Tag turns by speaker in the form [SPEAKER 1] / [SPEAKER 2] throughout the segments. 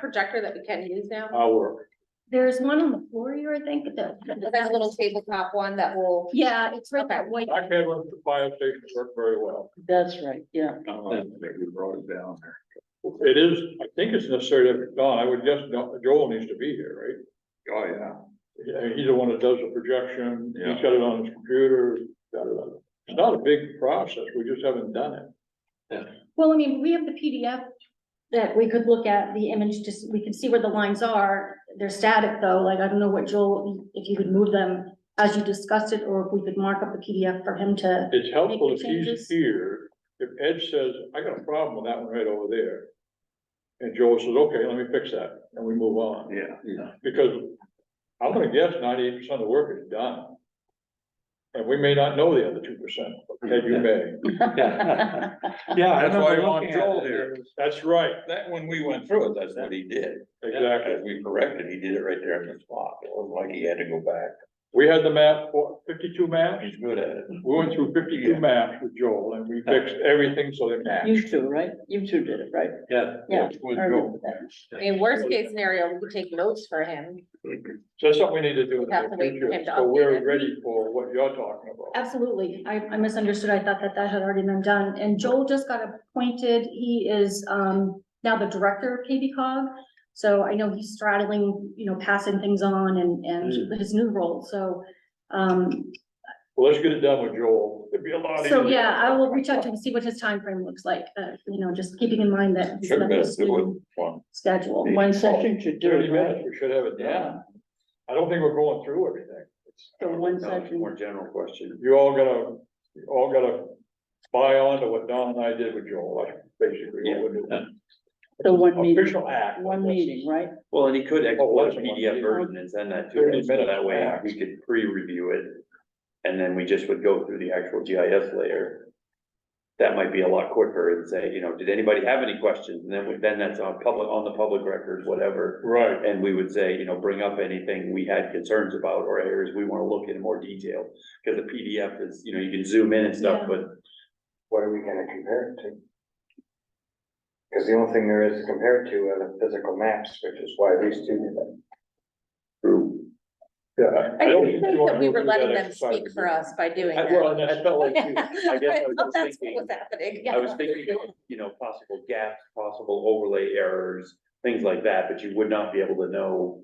[SPEAKER 1] projector that we can use now?
[SPEAKER 2] I'll work.
[SPEAKER 3] There's one on the floor here, I think, the.
[SPEAKER 1] That little tabletop one that will,
[SPEAKER 3] Yeah, it's right that white.
[SPEAKER 2] I've had one at the fire station work very well.
[SPEAKER 4] That's right, yeah.
[SPEAKER 2] we brought it down there. It is, I think it's necessary to, Don, I would guess Don- Joel needs to be here, right? Oh, yeah. Yeah, he's the one that does the projection, he's got it on his computer, got it on- it's not a big process, we just haven't done it.
[SPEAKER 3] Well, I mean, we have the PDF that we could look at the image, just, we can see where the lines are. They're static though, like I don't know what Joel, if you could move them as you discussed it, or if we could mark up the PDF for him to.
[SPEAKER 2] It's helpful if he's
[SPEAKER 3] changes.
[SPEAKER 2] here, if Ed says, I got a problem with that one right over there. And Joel says, okay, let me fix that, and we move on.
[SPEAKER 5] Yeah.
[SPEAKER 2] Because I'm gonna guess ninety-eight percent of the work is done. And we may not know the other two percent, Ted, you may.
[SPEAKER 5] Yeah,
[SPEAKER 4] Yeah.
[SPEAKER 5] that's why I
[SPEAKER 2] remember
[SPEAKER 5] want
[SPEAKER 2] looking at
[SPEAKER 5] Joel
[SPEAKER 2] it.
[SPEAKER 5] here.
[SPEAKER 2] That's right,
[SPEAKER 5] That, when we went through it, that's what he did.
[SPEAKER 2] exactly.
[SPEAKER 5] As we corrected, he did it right there in the spot. It wasn't like he had to go back.
[SPEAKER 2] We had the map, what, fifty-two maps,
[SPEAKER 5] He's good at it.
[SPEAKER 2] we went through fifty-two
[SPEAKER 5] Yeah.
[SPEAKER 2] maps with Joel, and we fixed everything so they
[SPEAKER 4] You
[SPEAKER 2] matched.
[SPEAKER 4] two, right? You two did it, right?
[SPEAKER 5] Yeah.
[SPEAKER 4] Yeah,
[SPEAKER 5] With
[SPEAKER 4] I remember
[SPEAKER 5] Joel.
[SPEAKER 4] that.
[SPEAKER 1] I mean, worst case scenario, we could take notes for him.
[SPEAKER 2] So that's something we need to do in
[SPEAKER 1] Have
[SPEAKER 2] the
[SPEAKER 1] to
[SPEAKER 2] near
[SPEAKER 1] wait for him
[SPEAKER 2] future,
[SPEAKER 1] to
[SPEAKER 2] so we're
[SPEAKER 1] update it.
[SPEAKER 2] ready for what you're talking about.
[SPEAKER 3] Absolutely. I, I misunderstood. I thought that that had already been done. And Joel just got appointed. He is, um, now the director of KB cog. So I know he's straddling, you know, passing things on and,
[SPEAKER 5] Mm.
[SPEAKER 3] and his new role. So, um,
[SPEAKER 2] Well, let's get it done with Joel, it'd be a lot easier.
[SPEAKER 3] so yeah, I will reach out to him, and see what his time frame looks like, uh, you know, just keeping in mind that. he's
[SPEAKER 5] Sure,
[SPEAKER 3] got
[SPEAKER 5] best
[SPEAKER 3] this
[SPEAKER 5] do
[SPEAKER 3] new
[SPEAKER 5] it one.
[SPEAKER 3] Schedule.
[SPEAKER 4] One session should do
[SPEAKER 2] Thirty
[SPEAKER 4] it, right?
[SPEAKER 2] minutes, we should have it
[SPEAKER 5] Yeah.
[SPEAKER 2] done. I don't think we're going through everything.
[SPEAKER 4] So one
[SPEAKER 5] No, it's
[SPEAKER 4] session.
[SPEAKER 5] More general question.
[SPEAKER 2] You all gotta, you all gotta buy on to what Don and I did with Joel, like, basically. what we're doing.
[SPEAKER 4] So one meeting,
[SPEAKER 2] Official act.
[SPEAKER 4] one meeting, right?
[SPEAKER 5] Well, and he could
[SPEAKER 2] Oh,
[SPEAKER 5] export
[SPEAKER 2] that's
[SPEAKER 5] a
[SPEAKER 2] one.
[SPEAKER 5] PDF version and send that to
[SPEAKER 2] Thirty
[SPEAKER 5] us, so that
[SPEAKER 2] minutes
[SPEAKER 5] way
[SPEAKER 2] max.
[SPEAKER 5] we could pre-review it. And then we just would go through the actual GIS layer. That might be a lot quicker and say, you know, did anybody have any questions? And then, we- then that's on public, on the public record, whatever.
[SPEAKER 2] Right,
[SPEAKER 5] And we would say, you know, bring up anything we had concerns about or areas we wanna look in more detail. Cause the PDF is, you know, you can zoom in and stuff,
[SPEAKER 3] Yeah.
[SPEAKER 5] but
[SPEAKER 6] what are we gonna compare it to? Because the only thing there is to compare it to are the physical maps, which is why these two did it.
[SPEAKER 2] yeah.
[SPEAKER 1] I
[SPEAKER 2] don't
[SPEAKER 1] didn't
[SPEAKER 2] you
[SPEAKER 1] think
[SPEAKER 2] wanna
[SPEAKER 1] that we
[SPEAKER 2] go
[SPEAKER 1] were
[SPEAKER 2] through
[SPEAKER 1] letting
[SPEAKER 2] that
[SPEAKER 1] them
[SPEAKER 2] exercise
[SPEAKER 1] speak for
[SPEAKER 2] again.
[SPEAKER 1] us by doing
[SPEAKER 5] I-
[SPEAKER 1] that.
[SPEAKER 5] well, and I felt like you- I guess I
[SPEAKER 1] I thought
[SPEAKER 5] was just
[SPEAKER 1] That's
[SPEAKER 5] thinking-
[SPEAKER 1] what was happening.
[SPEAKER 5] I was thinking, you know, possible gaps, possible overlay errors, things like that, but you would not be able to know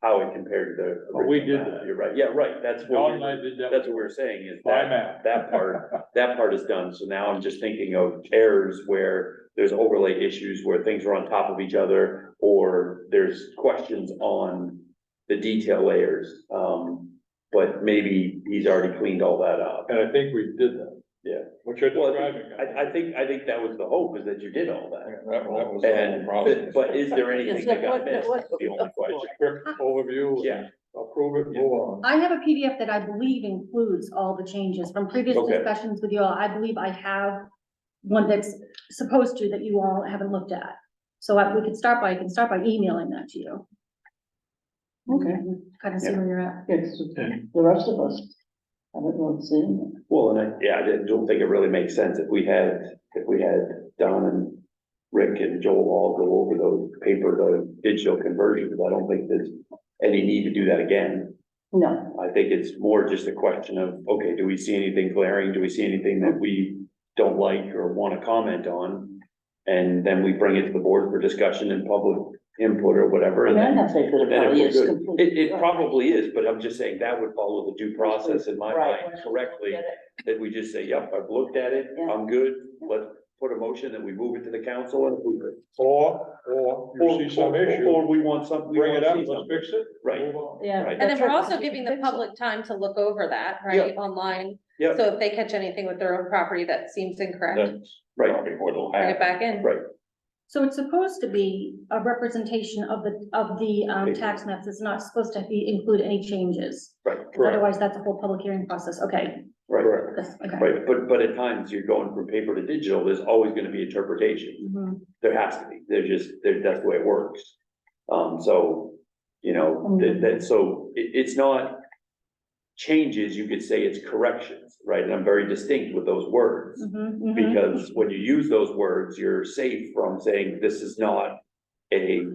[SPEAKER 5] how it compared to the.
[SPEAKER 2] But we
[SPEAKER 5] original
[SPEAKER 2] did
[SPEAKER 5] map.
[SPEAKER 2] that.
[SPEAKER 5] You're right, yeah, right, that's
[SPEAKER 2] Don
[SPEAKER 5] what,
[SPEAKER 2] and I did that.
[SPEAKER 5] that's what we're saying is
[SPEAKER 2] My
[SPEAKER 5] that,
[SPEAKER 2] map.
[SPEAKER 5] that part, that part is done, so now I'm just thinking of errors where there's overlay issues where things are on top of each other, or there's questions on the detail layers, um, but maybe he's already cleaned all that up.
[SPEAKER 2] And I think we did that.
[SPEAKER 5] Yeah.
[SPEAKER 2] What you're
[SPEAKER 5] Well,
[SPEAKER 2] describing.
[SPEAKER 5] I, I think, I think that was the hope, is that you did all that.
[SPEAKER 2] Yeah, That, that was the whole
[SPEAKER 5] And,
[SPEAKER 2] problem.
[SPEAKER 5] but- but is there anything
[SPEAKER 4] It's
[SPEAKER 5] that
[SPEAKER 4] like,
[SPEAKER 5] got
[SPEAKER 4] what-
[SPEAKER 5] missed?
[SPEAKER 4] what-
[SPEAKER 5] That's the only question.
[SPEAKER 2] Quick overview.
[SPEAKER 5] Yeah.
[SPEAKER 2] Approve it, move on.
[SPEAKER 3] I have a PDF that I believe includes all the changes from previous
[SPEAKER 5] Okay.
[SPEAKER 3] discussions with you all. I believe I have one that's supposed to that you all haven't looked at. So I- we could start by, I can start by emailing that to you.
[SPEAKER 4] Okay.
[SPEAKER 3] Kind of see where you're at.
[SPEAKER 4] It's the rest of us. I don't know, it's in.
[SPEAKER 5] Well, and I, yeah, I didn't- don't think it really makes sense if we had, if we had Don and Rick and Joel all go over those paper to digital conversions, I don't think there's any need to do that again.
[SPEAKER 4] No,
[SPEAKER 5] I think it's more just a question of, okay, do we see anything glaring? Do we see anything that we don't like or want to comment on? And then we bring it to the board for discussion and public input or whatever,
[SPEAKER 4] I
[SPEAKER 5] and
[SPEAKER 4] mean,
[SPEAKER 5] then.
[SPEAKER 4] I'm not saying that it
[SPEAKER 5] Then
[SPEAKER 4] probably
[SPEAKER 5] if
[SPEAKER 4] is
[SPEAKER 5] we're good,
[SPEAKER 4] completely.
[SPEAKER 5] it, it probably is, but I'm just saying that would follow the due process in my
[SPEAKER 4] Right.
[SPEAKER 5] mind correctly, that we just say, yep, I've looked at it,
[SPEAKER 4] Yeah.
[SPEAKER 5] I'm good. Let's put a motion that we move it to the council and approve it.
[SPEAKER 2] Or, or you see some
[SPEAKER 5] Or- or-
[SPEAKER 2] issue,
[SPEAKER 5] Or we want something. we
[SPEAKER 2] bring it
[SPEAKER 5] wanna
[SPEAKER 2] up,
[SPEAKER 5] see
[SPEAKER 2] let's
[SPEAKER 5] something.
[SPEAKER 2] fix it.
[SPEAKER 5] Right,
[SPEAKER 2] move on.
[SPEAKER 4] Yeah.
[SPEAKER 5] Right.
[SPEAKER 1] And then
[SPEAKER 4] that's
[SPEAKER 1] we're
[SPEAKER 4] right,
[SPEAKER 1] also
[SPEAKER 4] because you
[SPEAKER 1] giving the
[SPEAKER 4] fix it.
[SPEAKER 1] public time to look over that, right, online.
[SPEAKER 5] Yeah.
[SPEAKER 1] So if they catch anything with their own property that seems incorrect,
[SPEAKER 5] that's right.
[SPEAKER 1] bring it back in.
[SPEAKER 5] Right.
[SPEAKER 3] So it's supposed to be a representation of the, of the, um, tax maps. It's not supposed to be, include any changes.
[SPEAKER 5] Right,
[SPEAKER 2] Correct.
[SPEAKER 3] Otherwise, that's a whole public hearing process. Okay,
[SPEAKER 5] Right,
[SPEAKER 3] that's, okay.
[SPEAKER 5] right, but, but at times you're going from paper to digital, there's always gonna be interpretation.
[SPEAKER 3] Mhm.
[SPEAKER 5] There has to be, there's just, there, that's the way it works. Um, so, you know, that, that, so it, it's not changes, you could say it's corrections, right? And I'm very distinct with those words.
[SPEAKER 3] Mhm, mhm.
[SPEAKER 5] Because when you use those words, you're safe from saying this is not a